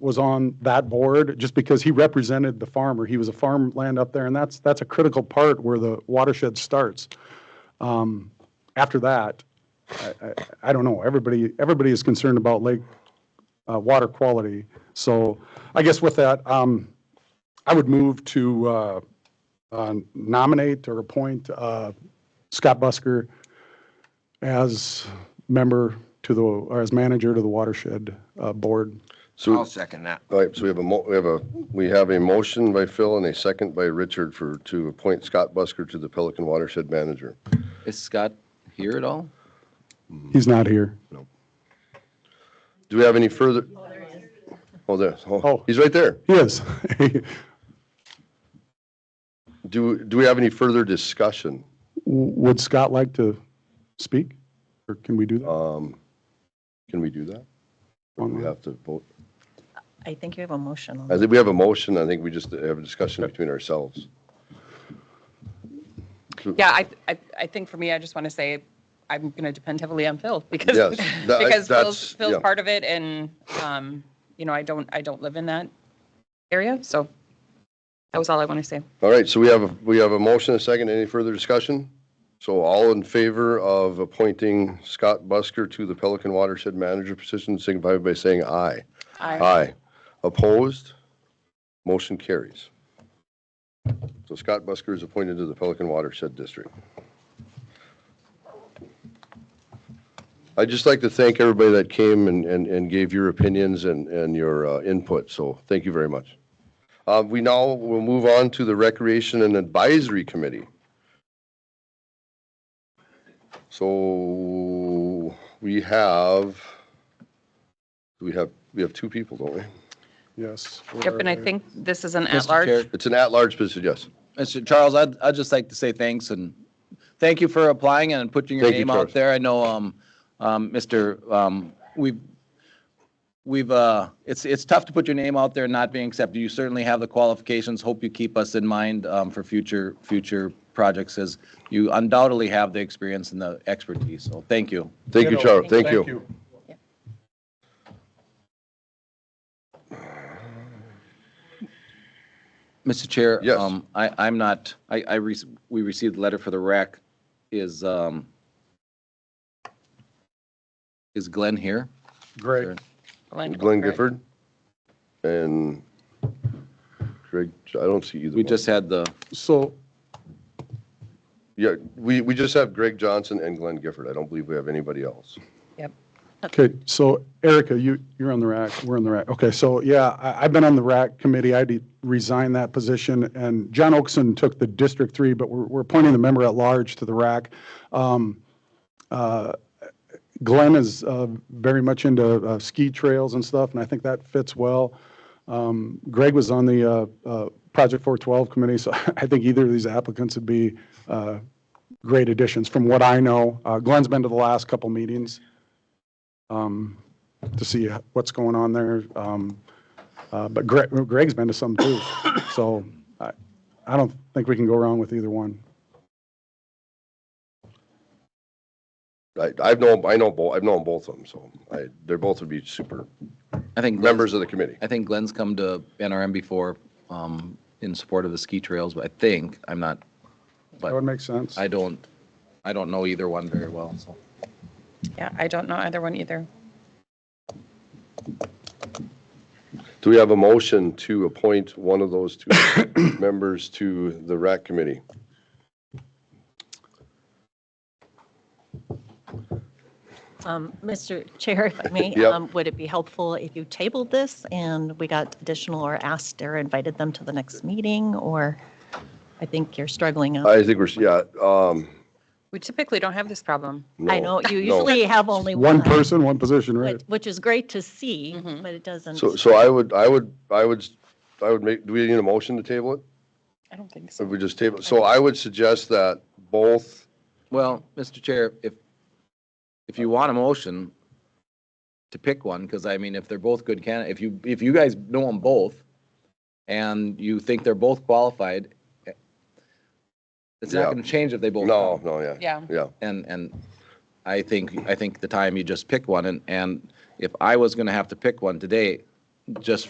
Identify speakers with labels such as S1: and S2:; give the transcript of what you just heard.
S1: was on that board just because he represented the farmer. He was a farmland up there, and that's, that's a critical part where the watershed starts. Um, After that, I, I, I don't know, everybody, everybody is concerned about lake, uh, water quality. So I guess with that, um, I would move to, uh, uh, nominate or appoint, uh, Scott Busker as member to the, or as manager to the watershed, uh, board.
S2: So,
S3: I'll second that.
S2: all right, so we have a mo, we have a, we have a motion by Phil and a second by Richard for, to appoint Scott Busker to the Pelican Watershed Manager.
S4: Is Scott here at all?
S1: He's not here.
S2: Do we have any further? Oh, there, oh,
S1: Oh.
S2: he's right there.
S1: He is.
S2: Do, do we have any further discussion?
S1: Would Scott like to speak? Or can we do that?
S2: Um, can we do that? Or do we have to vote?
S5: I think you have a motion on
S2: I
S5: it.
S2: think we have a motion, I think we just have a discussion between ourselves.
S6: Yeah, I, I, I think for me, I just want to say, I'm going to depend heavily on Phil because,
S2: Yes, that-
S6: because
S2: that's-
S6: Phil's, Phil's
S2: yeah.
S6: part of it and, um, you know, I don't, I don't live in that area, so that was all I want to say.
S2: All right, so we have, a we have a motion, a second, any further discussion? So all in favor of appointing Scott Busker to the Pelican Watershed Manager position, signify by saying aye.
S6: I,
S2: Aye. Opposed? Motion carries. So Scott Busker is appointed to the Pelican Watershed District. I'd just like to thank everybody that came and, and, and gave your opinions and, and your uh, input, so thank you very much. Uh, we now will move on to the Recreation and Advisory Committee. So we have, we have, we have two people, don't we?
S1: Yes.
S6: yep, and I think this is an
S4: Mr.
S6: at-large.
S4: Chair.
S2: It's an at-large position, yes.
S4: Mr. Charles, I'd, I'd just like to say thanks and thank you for applying and putting your
S2: Thank you,
S4: name out
S2: Charles.
S4: there. I know, um, um, Mr., um, we've, we've, uh, it's, it's tough to put your name out there and not being accepted. You certainly have the qualifications. Hope you keep us in mind, um, for future, future projects as you undoubtedly have the experience and the expertise. So thank you.
S2: Thank you, Charles, thank you.
S4: Mr. Chair?
S2: Yes.
S4: um, I, I'm not, I, I, rec- we received a letter for the rec. Is, um, is Glenn here?
S1: Great.
S2: Glenn Gifford and Greg, I don't see either
S4: We
S2: one.
S4: just had the,
S1: So,
S2: Yeah, we, we just have Greg Johnson and Glenn Gifford. I don't believe we have anybody else.
S6: Yep.
S1: okay, so Erica, you, you're on the rack, we're on the rack. Okay, so yeah, I, I've been on the rack committee. I de- resigned that position and John Oakson took the District Three, but we're, we're appointing the member at large to the rack. Um, uh, Glenn is uh, very much into uh, ski trails and stuff, and I think that fits well. Um, Greg was on the uh, uh, Project 412 committee, so I think either of these applicants would be uh, great additions, from what I know. Uh, Glenn's been to the last couple meetings um, to see what's going on there, um, uh, but Greg, Greg's been to some too, so I, I don't think we can go wrong with either one.
S2: I, I've known, I know both, I've known both of them, so I, they're both would be super
S4: I think. Glenn's-
S2: members of the committee.
S4: I think Glenn's come to NRM before um, in support of the ski trails, but I think, I'm not,
S1: That would make sense.
S4: I don't, I don't know either one very well, so.
S6: Yeah, I don't know either one either.
S2: Do we have a motion to appoint one of those two members to the RAC committee?
S5: Um, Mr. Chair, if I may,
S2: Yep.
S5: um, would it be helpful if you tabled this and we got additional or asked or invited them to the next meeting? Or I think you're struggling. on-
S2: I think we're, yeah, um,
S6: We typically don't have this problem.
S2: no.
S5: I know you
S2: no.
S5: usually have only one.
S1: One person, one position, right?
S5: but- Which is great to see, but it doesn't.
S2: Mm-hmm. So, so I would, I would, I would, I would make, do we need a motion to table it?
S6: I don't think
S2: If
S6: so.
S2: we just table, so I would suggest that both,
S4: Well, Mr. Chair, if, if you want a motion to pick one, because I mean, if they're both good candidates, if you, if you guys know them both and you think they're both qualified, eh, it's
S2: Yeah.
S4: not going to change if they both.
S2: no,
S4: come.
S2: no, yeah.
S6: Yeah.
S2: Yeah.
S4: And, and I think, I think the time you just pick one and, and if I was going to have to pick one today, just